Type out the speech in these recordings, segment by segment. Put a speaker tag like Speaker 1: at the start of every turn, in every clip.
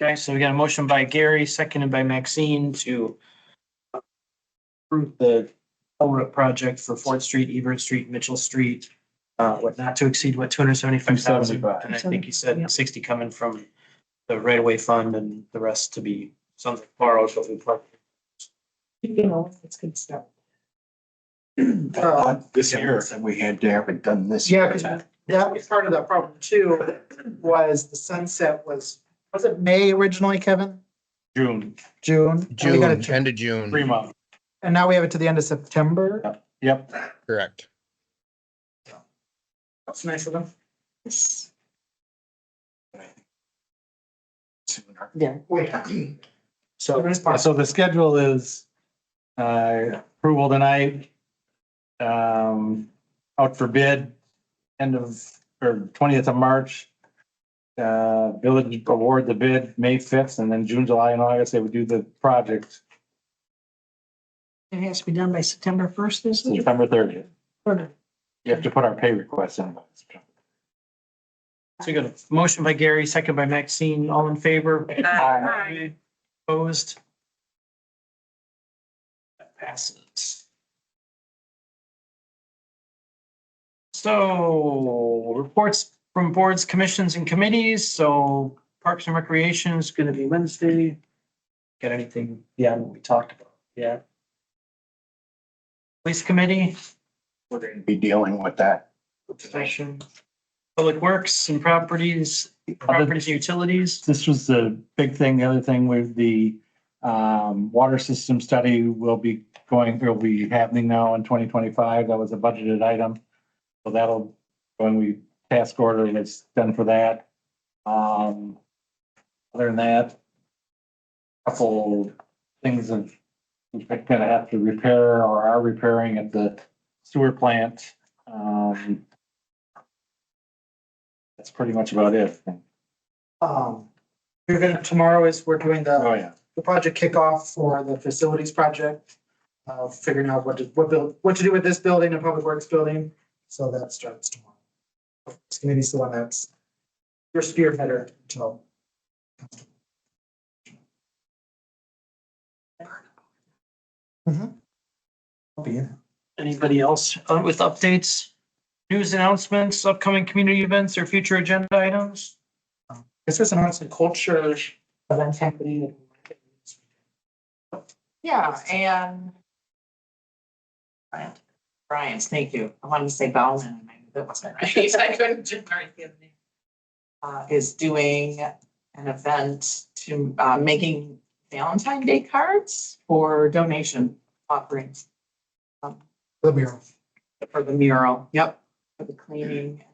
Speaker 1: Okay, so we got a motion by Gary, seconded by Maxine to approve the culvert project for Fort Street, Ebert Street, Mitchell Street, uh, what not to exceed, what, two hundred seventy-five thousand?
Speaker 2: 275.
Speaker 1: And I think you said
Speaker 3: Yep.
Speaker 1: sixty coming from the right-of-way fund and the rest to be something borrowed, so if we plug.
Speaker 3: You know, it's good stuff.
Speaker 4: Uh,
Speaker 2: This year,
Speaker 4: and we had to have it done this.
Speaker 3: Yeah,
Speaker 4: year.
Speaker 3: 'cause that was part of the problem too, was the sunset was, was it May originally, Kevin?
Speaker 1: June,
Speaker 3: June? And we
Speaker 5: June,
Speaker 3: got it to-
Speaker 5: end of June,
Speaker 1: three months.
Speaker 3: And now we have it to the end of September.
Speaker 2: yep.
Speaker 5: correct.
Speaker 3: That's nice of them.
Speaker 4: Sooner.
Speaker 3: Yeah.
Speaker 2: So, so the schedule is, uh, approval tonight. Um, out for bid, end of, or twentieth of March. Uh, village award the bid May fifth and then June, July and August, they would do the project
Speaker 3: It has to be done by September first, is
Speaker 2: September thirtieth.
Speaker 3: it?
Speaker 2: You have to put our pay request in. by September.
Speaker 1: So we got a motion by Gary, seconded by Maxine, all in favor? Aye. Opposed? That passes. So reports from boards, commissions and committees. So Parks and Recreation is going to be Wednesday. Got anything beyond what we talked about? Yeah. Police Committee,
Speaker 4: We're gonna be dealing with that.
Speaker 1: session, Public Works and Properties, Properties and Utilities.
Speaker 2: This was the big thing. The other thing with the um, water system study will be going, will be happening now in twenty twenty-five. That was a budgeted item. So that'll, when we task order, it's done for that. Um, other than that, couple things of, we're gonna have to repair or are repairing at the sewer plant. Um, that's pretty much about it.
Speaker 3: Um, we're gonna, tomorrow is, we're doing the.
Speaker 2: Oh, yeah.
Speaker 3: the project kickoff for the facilities project. Uh, figuring out what to, what build, what to do with this building and public works building, so that starts tomorrow. It's gonna be the one that's your spearheader until. Mhm. I'll be in.
Speaker 1: Anybody else uh, with updates, news announcements, upcoming community events or future agenda items?
Speaker 3: This is an arts and culture event happening.
Speaker 6: Yeah, and. Brian, Brian's, thank you. I wanted to say Bowman, and I knew that wasn't right. I couldn't remember the other name. Uh, is doing an event to, uh, making Valentine Day cards for donation offerings
Speaker 3: The mural.
Speaker 6: for the mural. Yep. For the cleaning.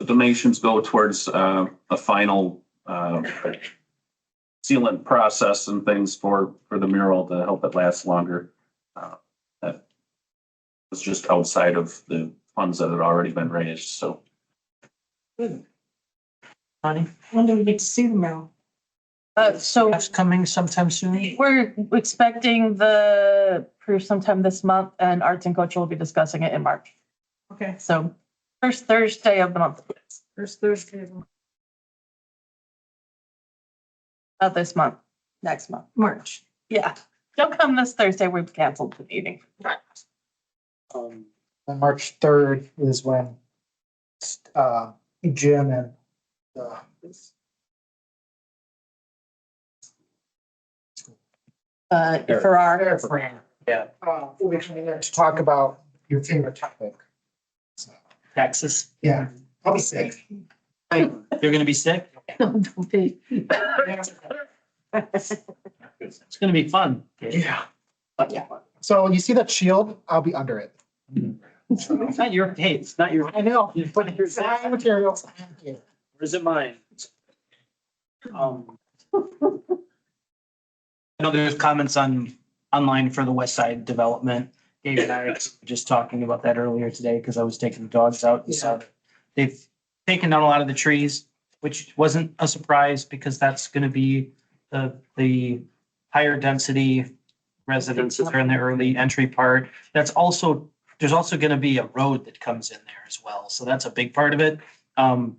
Speaker 7: The donations go towards uh, a final uh, sealant process and things for, for the mural to help it last longer. Uh, That was just outside of the funds that had already been raised, so.
Speaker 1: Honey,
Speaker 6: When do we get to see the mural?
Speaker 8: Uh, so
Speaker 1: that's coming sometime soon.
Speaker 8: we're expecting the proof sometime this month and Arts and Culture will be discussing it in March.
Speaker 6: Okay.
Speaker 8: So first Thursday of the month,
Speaker 6: First Thursday.
Speaker 8: not this month, next month.
Speaker 6: March.
Speaker 8: Yeah. Don't come this Thursday. We've canceled the meeting.
Speaker 3: Um, and March third is when, uh, Jim and, uh,
Speaker 8: Uh, Farrar,
Speaker 3: Eric Fran.
Speaker 1: Yeah.
Speaker 3: Uh, will be coming there to talk about your favorite topic.
Speaker 1: Taxes.
Speaker 3: Yeah, I'll be sick.
Speaker 1: You're gonna be sick?
Speaker 6: Don't be.
Speaker 1: It's gonna be fun.
Speaker 3: Yeah. So you see that shield? I'll be under it.
Speaker 1: It's not your, hey, it's not your,
Speaker 3: I know, but your design materials.
Speaker 1: or is it mine? Um. I know there's comments on, online for the West Side Development. Dave and I were just talking about that earlier today because I was taking the dogs out and saw that They've taken down a lot of the trees, which wasn't a surprise because that's gonna be the, the higher density residences are in the early entry part. That's also, there's also gonna be a road that comes in there as well. So that's a big part of it. Um,